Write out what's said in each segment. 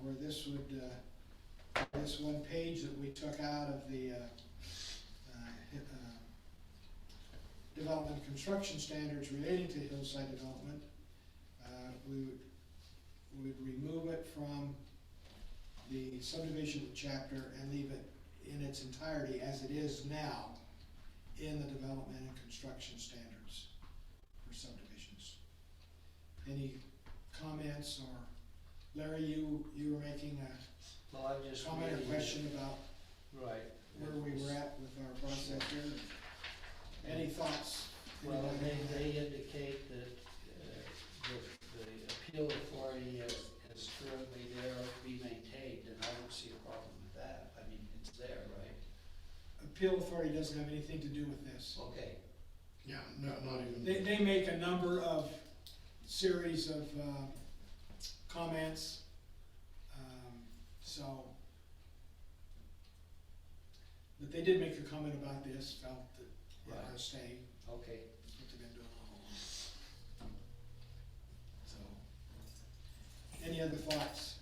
where this would, uh, this one page that we took out of the, uh, uh, hi- uh, development and construction standards relating to hillside development, uh, we would, we would remove it from the subdivision chapter and leave it in its entirety as it is now in the development and construction standards for subdivisions. Any comments or, Larry, you, you were making a Well, I'm just comment or reading. question about Right. where we were at with our process here. Any thoughts? Well, Anybody? they, they indicate that, uh, the, the appeal authority as, as currently there be maintained, and I don't see a problem with that. I mean, it's there, right? Appeal authority doesn't have anything to do with this. Okay, Yeah, no, not even. They, they make a number of series of, uh, comments, um, so. But they did make a comment about this, felt that, Right. I stay, okay. that's what they've been doing all along. So, any other thoughts?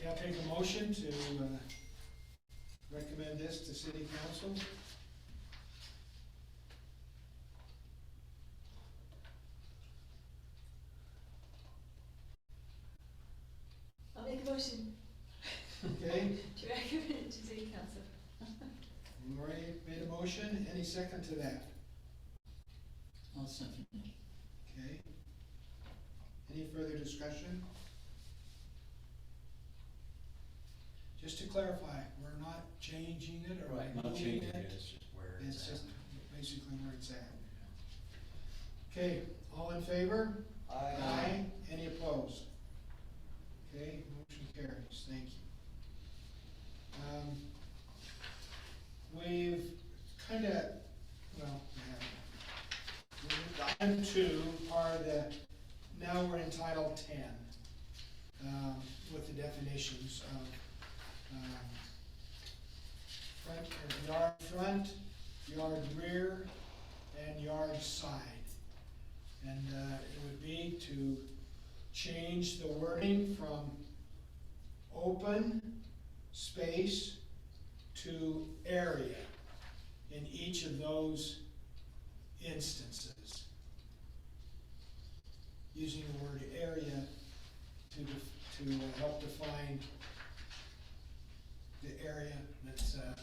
Okay, I'll take a motion to, uh, recommend this to city council. I'll make a motion Okay, to recommend it to city council. Lori made a motion, any second to that? I'll second it. Okay. Any further discussion? Just to clarify, we're not changing it or Right, Not removing changing it, it. it's just where It's it's at. just basically where it's at. Okay, all in favor? I, Any opposed? Okay, motion carries, thank you. Um, We've kinda, well, we haven't. Item two are the, now we're in Title Ten, um, with the definitions of, um, front, or yard front, yard rear, and yard side. And uh, it would be to change the wording from open space to area in each of those instances. Using the word area to, def- to uh, help define the area that's, uh,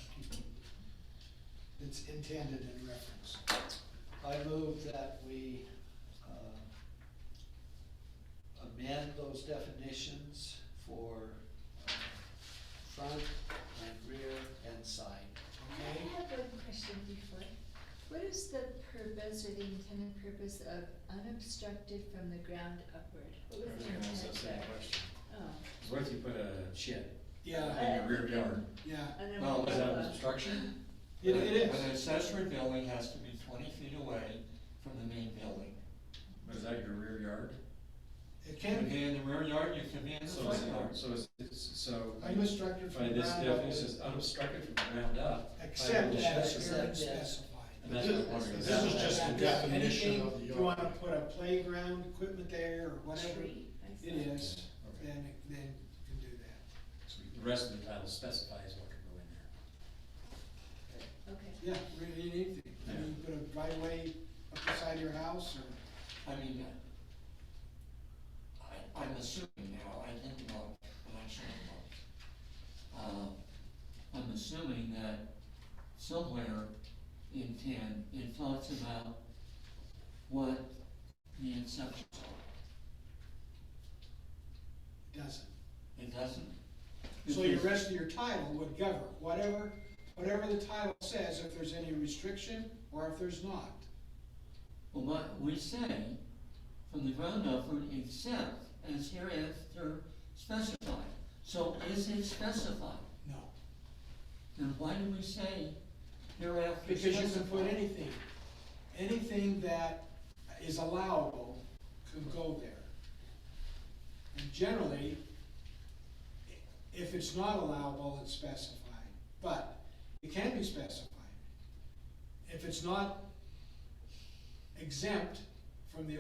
that's intended in reference. I move that we, um, amend those definitions for, uh, front and rear and side. Okay? I have one question before. What is the purpose or the intended purpose of unobstructed from the ground upward? What was the intent there? Oh, What if you put a shed Yeah, in your rear yard? yeah. an Well, is that umbrella. obstruction? It, it is. An accessory building has to be twenty feet away from the main building. But is that your rear yard? It You can can be. be in the rear yard, you can be in the So, it's- front yard. so, it's- it's- so, Are you obstructed by from this ground up? definition, it's unobstructed from the ground up. Except By as herein definition. Except as- specified. And that's what I'm wondering. This is just the Anything, definition of the You wanna yard. put a playground equipment there or whatever it Tree, I see. is, Okay. then, it- then you can do that. So The rest of the title specifies what can go in there. Okay. Yeah, really anything. I mean, you put a driveway up the side of your house or, I mean, I, I'm assuming now, I didn't look, but I should have looked. Uh, I'm assuming that somewhere in ten, it talks about what the exceptions are. doesn't. It doesn't. So your rest of your title would govern, whatever, whatever the title says, if there's any restriction or if there's not. Well, what we say from the ground upward, except as hereafter specified. So is it specified? No. Then why do we say hereafter Because specified? you can put anything, anything that is allowable could go there. And generally, if it's not allowable, it's specified, but it can be specified. If it's not exempt from the